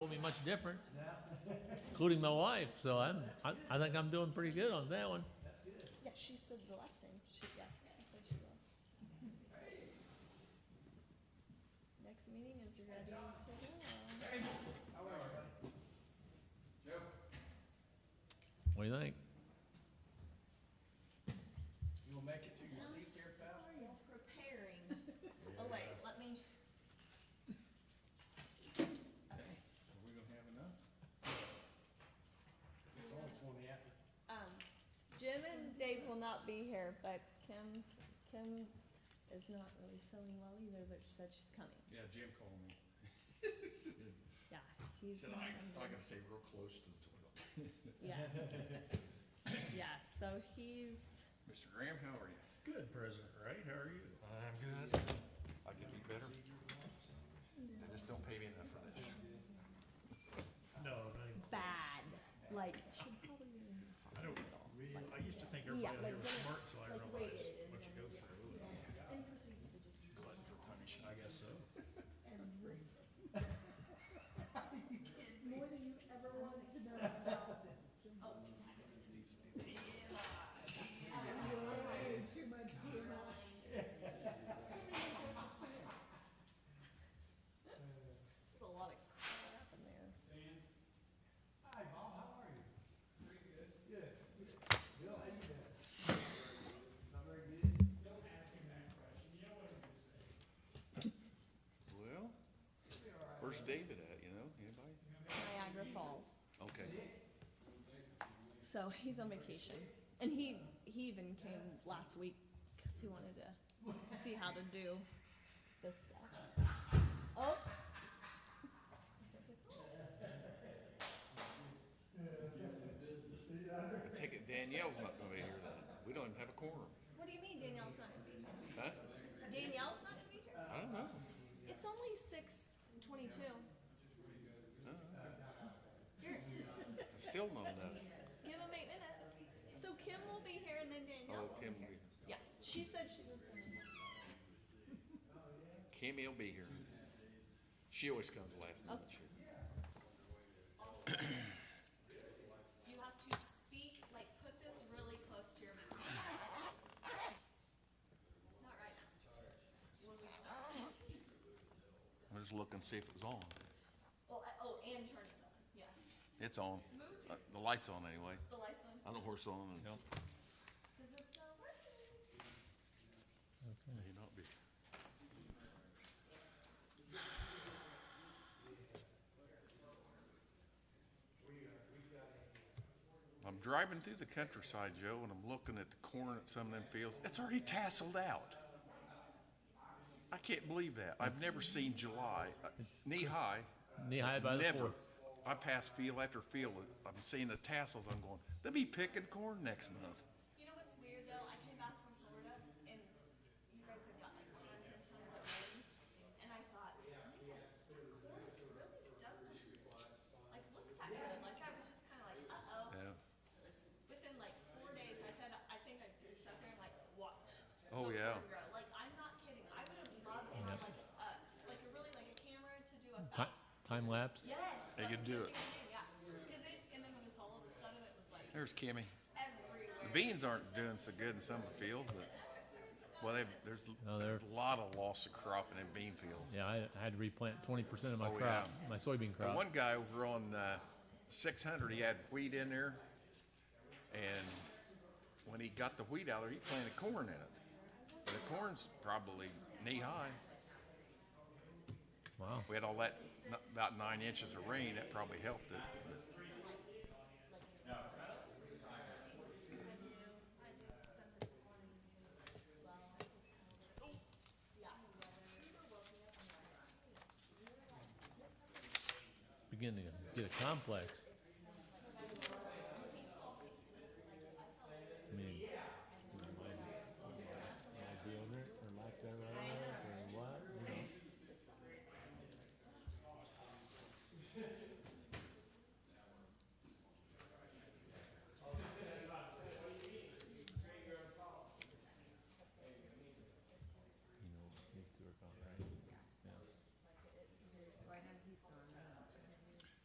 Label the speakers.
Speaker 1: ain't much different, including my wife, so I'm, I, I think I'm doing pretty good on that one.
Speaker 2: Yeah, she said the last name. She, yeah, she said she was. Next meeting is ready to go.
Speaker 1: What do you think?
Speaker 3: You will make it to your seat there, pal?
Speaker 2: Preparing. Oh, wait, let me. Okay,
Speaker 3: Are we gonna have enough? It's only twenty after.
Speaker 2: um, Jim and Dave will not be here, but Kim, Kim is not really feeling well either, but she said she's coming.
Speaker 3: Yeah, Jim called me.
Speaker 2: Yeah, he's.
Speaker 3: Said,
Speaker 2: not
Speaker 3: I,
Speaker 2: coming.
Speaker 3: I gotta stay real close to the toilet.
Speaker 2: Yes. Yeah, so he's.
Speaker 3: Mr. Graham, how are you?
Speaker 4: Good, President Wright, how are you?
Speaker 3: I'm good. I could be better. They just don't pay me enough for this.
Speaker 4: No, not even close.
Speaker 2: bad. Like,
Speaker 4: I don't, I used to think everybody out here was smart, so I realized what you go through.
Speaker 3: Glutton for punishment.
Speaker 4: I guess so.
Speaker 5: More than you ever wanted to know about them. Too much, too much.
Speaker 2: there's a lot of crap in there.
Speaker 3: Hi, Bob, how are you? Pretty good. Good. Bill, how you doing? Not very good?
Speaker 6: Well, where's David at, you know, anybody?
Speaker 2: Niagara Falls.
Speaker 6: Okay,
Speaker 2: So he's on vacation, and he he even came last week because he wanted to see how to do this stuff. Oh.
Speaker 6: I take it Danielle's not gonna be here then, we don't even have a quorum,
Speaker 2: What do you mean Danielle's not gonna be here?
Speaker 6: huh?
Speaker 2: Danielle's not gonna be here?
Speaker 6: I don't know,
Speaker 2: It's only six twenty-two. You're,
Speaker 6: I still don't know,
Speaker 2: give him eight minutes. So Kim will be here and then Danielle
Speaker 6: oh,
Speaker 2: will be
Speaker 6: Kim,
Speaker 2: here. Yes, she said she was gonna.
Speaker 6: Kimmy will be here. She always comes last minute, sure.
Speaker 2: You have to speak, like, put this really close to your mouth. Not right now. When we start.
Speaker 6: I'm just looking, to see if it was on,
Speaker 2: Well, I- oh, and turn it on, yes.
Speaker 6: it's on,
Speaker 2: Move
Speaker 6: Uh, the light's on anyway,
Speaker 2: the lights on,
Speaker 6: I don't know where it's on, and
Speaker 2: because it's not working.
Speaker 6: may not be. I'm driving through the countryside, Joe, and I'm looking at the corn at some of them fields. It's already tasseled out. I can't believe that. I've never seen July uh, knee-high.
Speaker 1: Knee high by the
Speaker 6: Never.
Speaker 1: fourth.
Speaker 6: I pass field after field. I'm seeing the tassels. I'm going, they'll be picking corn next month.
Speaker 2: You know what's weird, though? I came back from Florida, and you guys had got like tons and tons of rain, and I thought, man, corn really doesn't, like, look at that corn, like, I was just kind of like, uh-oh.
Speaker 6: Yeah.
Speaker 2: within like four days, I said, I think I sat there and like watch.
Speaker 6: Oh,
Speaker 2: the
Speaker 6: yeah.
Speaker 2: corn grow. Like I'm not kidding. I would have loved to have like a, s- like a really like a camera to do a
Speaker 1: Ti-
Speaker 2: fast.
Speaker 1: Time lapse?
Speaker 2: yes.
Speaker 6: They
Speaker 2: like
Speaker 6: could
Speaker 2: a
Speaker 6: do it.
Speaker 2: cooking thing, Yeah. Because it and then when it's all of a sudden it was like
Speaker 6: There's Kimmy.
Speaker 2: everywhere.
Speaker 6: The beans aren't doing so good in some of the fields, but, well, they've, there's
Speaker 1: No, they're-
Speaker 6: a lot of loss of crop in them bean fields.
Speaker 1: Yeah, I I had to replant twenty percent of my
Speaker 6: Oh,
Speaker 1: crop,
Speaker 6: yeah.
Speaker 1: my soybean
Speaker 6: And
Speaker 1: crop.
Speaker 6: one guy over on, uh, six hundred, he had wheat in there, and when he got the wheat out there, he planted corn in it. The corn's probably knee-high.
Speaker 1: Wow.
Speaker 6: We had all that, n- about nine inches of rain, that probably helped it.
Speaker 1: Beginning to get a complex.